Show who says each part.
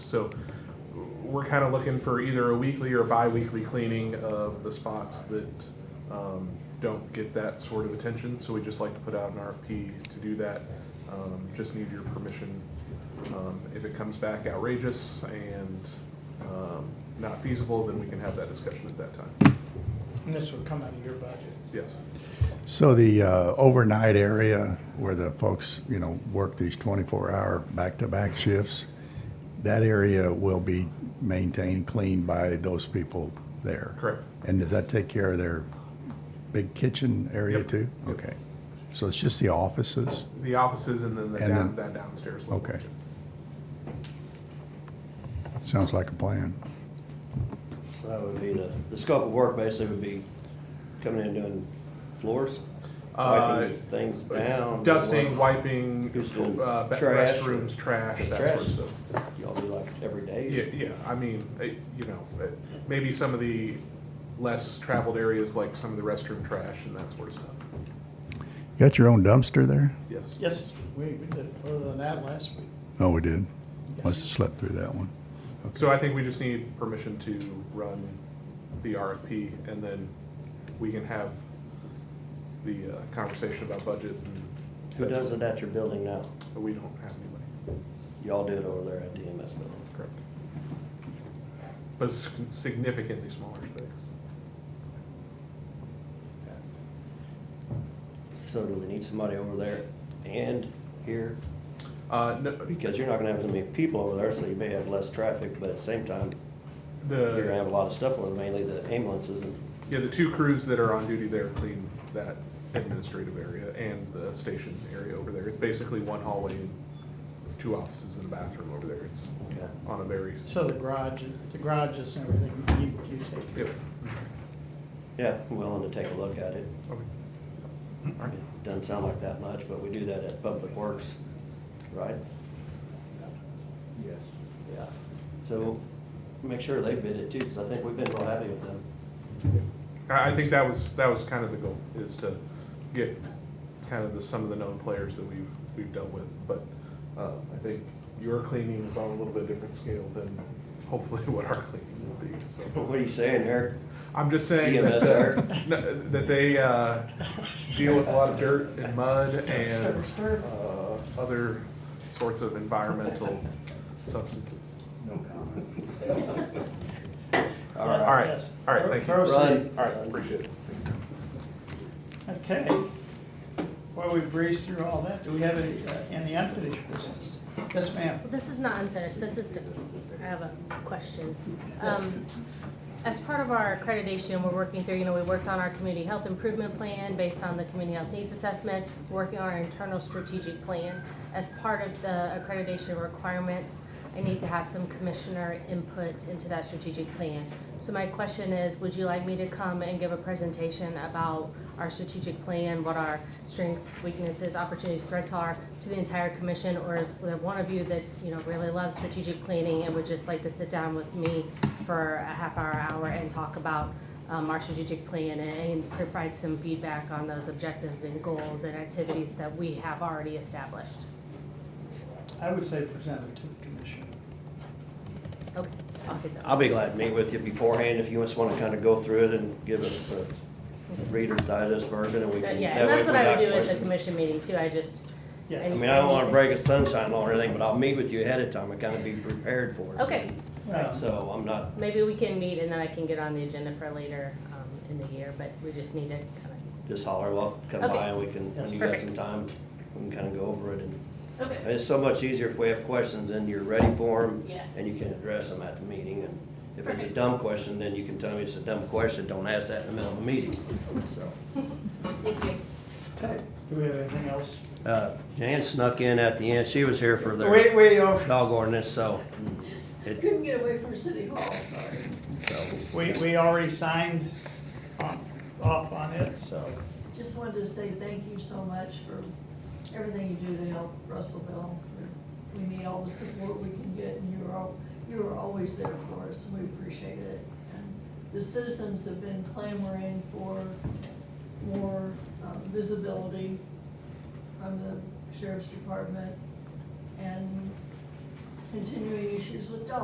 Speaker 1: So we're kind of looking for either a weekly or bi-weekly cleaning of the spots that um, don't get that sort of attention. So we just like to put out an RFP to do that. Um, Just need your permission. Um, If it comes back outrageous and um, not feasible, then we can have that discussion at that time.
Speaker 2: And this would come out of your budget.
Speaker 1: Yes.
Speaker 3: So the uh, overnight area where the folks, you know, work these 24-hour back-to-back shifts, that area will be maintained clean by those people there?
Speaker 1: Correct.
Speaker 3: And does that take care of their big kitchen area
Speaker 1: Yep.
Speaker 3: too? Okay. So it's just the offices?
Speaker 1: The offices and then the
Speaker 3: And
Speaker 1: down, that
Speaker 3: then-
Speaker 1: downstairs level.
Speaker 3: Okay. Sounds like a plan.
Speaker 4: So that would be the, the scope of work basically would be coming in doing floors,
Speaker 1: Uh,
Speaker 4: wiping things down.
Speaker 1: Dusting,
Speaker 4: what-
Speaker 1: wiping,
Speaker 4: Just the
Speaker 1: uh, ba-
Speaker 4: trash.
Speaker 1: restrooms, trash, that sort
Speaker 4: Trash.
Speaker 1: of stuff.
Speaker 4: Y'all do like every day?
Speaker 1: Yeah, yeah, I mean, eh, you know, eh, maybe some of the less traveled areas, like some of the restroom trash and that sort of stuff,
Speaker 3: Got your own dumpster there?
Speaker 1: yes.
Speaker 2: Yes, we, we did further than that last week.
Speaker 3: Oh, we did. Must have
Speaker 2: Yes.
Speaker 3: slept through that one.
Speaker 1: So I think we just need permission to run the RFP, and then we can have the uh, conversation about budget. and
Speaker 4: Who
Speaker 1: that
Speaker 4: does
Speaker 1: sort
Speaker 4: it at your building now?
Speaker 1: of- We don't have anybody,
Speaker 4: Y'all do it over there at DMS building.
Speaker 1: correct. But it's significantly smaller space.
Speaker 4: So do we need somebody over there and here?
Speaker 1: Uh, no,
Speaker 4: Because you're not gonna have as many people over there, so you may have less traffic, but at the same time,
Speaker 1: the.
Speaker 4: you're gonna have a lot of stuff over, there, mainly the ambulances and
Speaker 1: Yeah, the two crews that are on duty there clean that administrative area and the station area over there. It's basically one hallway and two offices and a bathroom over there. It's
Speaker 4: Okay.
Speaker 1: on a very,
Speaker 2: So the garage, the garages and everything, you, you take care
Speaker 1: yep.
Speaker 2: of.
Speaker 4: Yeah, I'm willing to take a look at it.
Speaker 1: Okay.
Speaker 4: It Doesn't sound like that much, but we do that at Public Works, right?
Speaker 5: Yes.
Speaker 4: Yeah. So make sure they bid it too, because I think we've been real happy with them.
Speaker 1: I, I think that was, that was kind of the goal, is to get kind of the, some of the known players that we've, we've dealt with. But, uh, I think your cleaning is on a little bit different scale than hopefully what our cleaning will be, so.
Speaker 4: What are you saying, Eric?
Speaker 1: I'm just saying that, uh,
Speaker 4: EMSR.
Speaker 1: no, that they uh, deal with a lot of dirt and mud and uh, other sorts of environmental substances.
Speaker 5: No comment.
Speaker 4: All
Speaker 1: All
Speaker 4: right.
Speaker 1: right,
Speaker 2: Yes.
Speaker 1: all right, thank you.
Speaker 4: Proceed.
Speaker 1: All right, appreciate it.
Speaker 2: Okay. Well, we breezed through all that. Do we have any, uh, any unfinished business? Yes, ma'am.
Speaker 6: This is not unfinished, this is, different. I have a question. Um, As part of our accreditation, we're working through, you know, we worked on our community health improvement plan based on the community health needs assessment, working on our internal strategic plan. As part of the accreditation requirements, I need to have some commissioner input into that strategic plan. So my question is, would you like me to come and give a presentation about our strategic plan, what our strengths, weaknesses, opportunities, threats are to the entire commission? Or is there one of you that, you know, really loves strategic planning and would just like to sit down with me for a half hour, hour and talk about um, our strategic plan and provide some feedback on those objectives and goals and activities that we have already established?
Speaker 2: I would say present it to the commission.
Speaker 6: Okay, I'll get that. Uh,
Speaker 4: I'll be glad to meet with you beforehand if you just want to kind of go through it and give us the Reader's Digest version and we can.
Speaker 6: Yeah,
Speaker 4: that
Speaker 6: and
Speaker 4: way
Speaker 6: that's
Speaker 4: if we
Speaker 6: what I
Speaker 4: got
Speaker 6: would do at the
Speaker 4: questions-
Speaker 6: commission meeting too, I just.
Speaker 2: Yes. Um,
Speaker 4: I
Speaker 2: commission.
Speaker 4: mean, I don't want
Speaker 6: need
Speaker 4: to break a sunshine law or anything, but I'll meet with you ahead of time and kind of be prepared for it.
Speaker 6: Okay,
Speaker 2: Uh,
Speaker 4: So I'm not,
Speaker 6: maybe we can meet and then I can get on the agenda for later um, in the year, but we just need to kind
Speaker 4: just holler, well, come
Speaker 6: Okay.
Speaker 4: by and we can, when you got some
Speaker 6: Perfect.
Speaker 4: time, we can kind of go over it and
Speaker 6: of.
Speaker 4: And It's so much easier if we have questions and you're ready for them.
Speaker 6: Yes.
Speaker 4: And you can address them at the meeting. And if it's a
Speaker 6: Perfect.
Speaker 4: dumb question, then you can tell me it's a dumb question. Don't ask that in the middle of a meeting, so.
Speaker 6: Thank you.
Speaker 2: Okay, do we have anything else?
Speaker 4: uh, Jan snuck in at the end. She was here for
Speaker 2: Wait,
Speaker 4: the
Speaker 2: wait, oh,
Speaker 4: dog ordinance, so. it-
Speaker 7: Couldn't get away from City Hall, sorry.
Speaker 4: so-
Speaker 2: we, we already signed on, off on it, so.
Speaker 7: Just wanted to say thank you so much for everything you do to help Russellville. We need all the support we can get, and you're all, you are always there for us, and we appreciate it. And The citizens have been clamoring for more uh, visibility from the sheriff's department and continuing issues with dogs.